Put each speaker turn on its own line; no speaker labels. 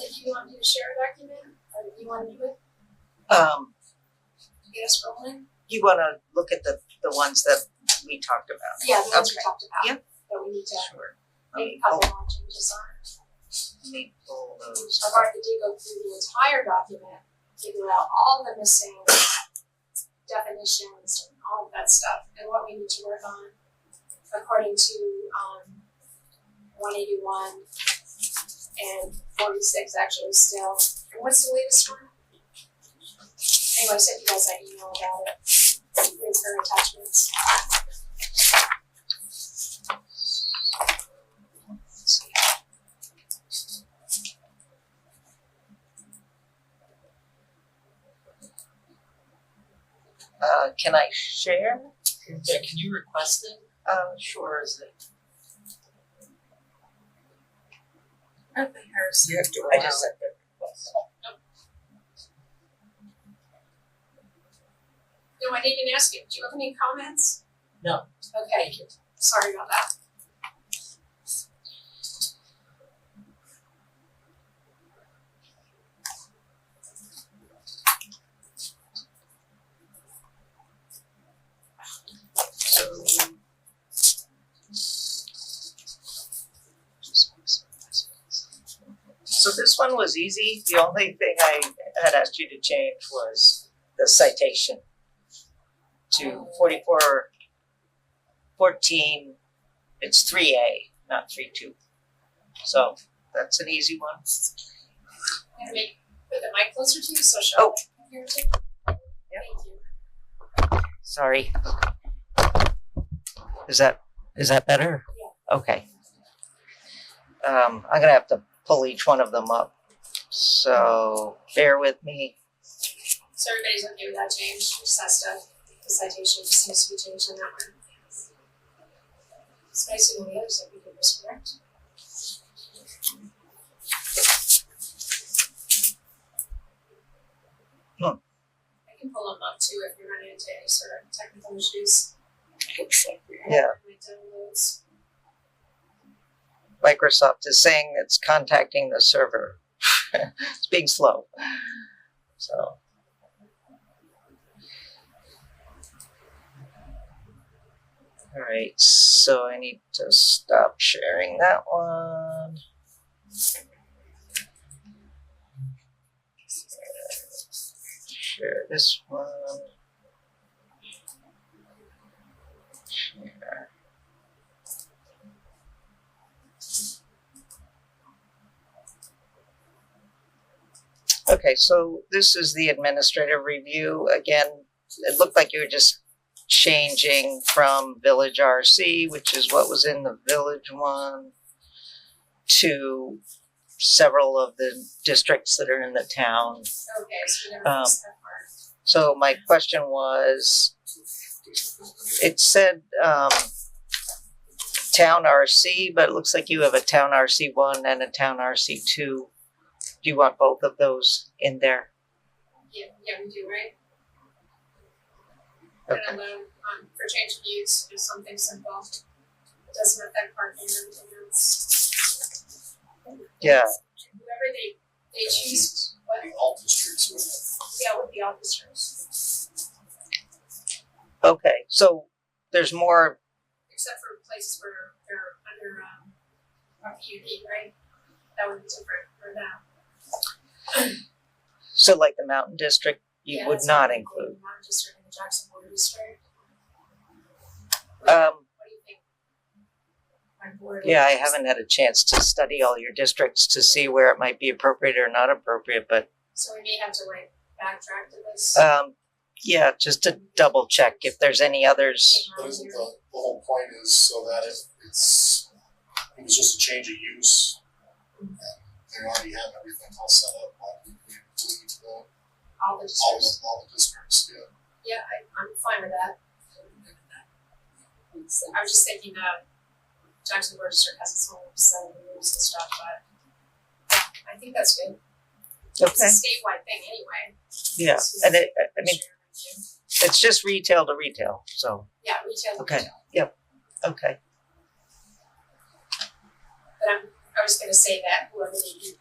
did you want me to share a document, or do you wanna do it,
Um,
get us rolling?
you wanna look at the, the ones that we talked about?
Yeah, the ones we
Okay.
talked
Yeah.
about, that we need to
Sure. Let
make
me
a
pull,
couple more changes on.
let me pull those.
I've already did go through the entire document, figure out all the missing definitions and all of that stuff, and what we need to work on according to, um, one eighty-one and forty-six actually still, and what's the latest one? Anyway, I sent you guys that email about it, with her attachments.
Uh, can I share?
Yeah, can you request it?
Um, sure, is it?
You have to
I just said the request.
No, I didn't even ask you, do you have any comments?
No.
Okay, sorry about that.
So. So this one was easy, the only thing I had asked you to change was the citation to forty-four fourteen, it's three A, not three two. So that's an easy one.
I'm gonna make, put the mic closer to you, so she'll.
Oh.
Here, take. Thank you.
Sorry. Is that, is that better? Okay. Um, I'm gonna have to pull each one of them up, so bear with me.
So everybody's okay with that change, just that stuff, the citation just needs to be changed on that one. It's nice to know the others that we could just correct.
Hmm.
I can pull them up too if you're running into any sort of technical issues. Looks like we
Yeah.
My downloads.
Microsoft is saying it's contacting the server. It's being slow. So. All right, so I need to stop sharing that one. Share this one. Share. Okay, so this is the administrative review. Again, it looked like you were just changing from Village RC, which is what was in the Village one, to several of the districts that are in the town.
Okay, so we never
Um,
missed that part.
So my question was, it said, um, town RC, but it looks like you have a town RC one and a town RC two. Do you want both of those in there?
Yeah, yeah, we do, right?
Okay.
And alone, um, for change of use, if something's involved, it doesn't affect parking or anything else.
Yeah,
Whoever they, they choose, what,
All districts with
yeah, would be officers,
okay, so there's more,
except for places where they're under, um, a PUD, right? That would be different for that.
so like the mountain district, you
Yeah,
would
that's
not
I'm
include.
thinking, Not just in the Jackson Board District,
Um,
what do you think? My board.
yeah, I haven't had a chance to study all your districts to see where it might be appropriate or not appropriate, but,
So we may have to like backtrack to this.
um, yeah, just to double check if there's any others.
Take
But
my
isn't the,
theory.
the whole point is so that if it's, it was just a change of use, and they already have everything all set up, like, we include the, all
all the
the,
districts.
all the districts, yeah.
Yeah, I, I'm fine with that. I was just thinking that Jackson Board District has its own set of rules and stuff, but yeah, I think that's good. It's a
Okay,
statewide thing anyway.
yeah, and it, I mean,
Sure, thank you.
it's just retail to retail, so,
Yeah, retail.
Okay.
retail.
okay.
But I'm, I was gonna say that whoever they do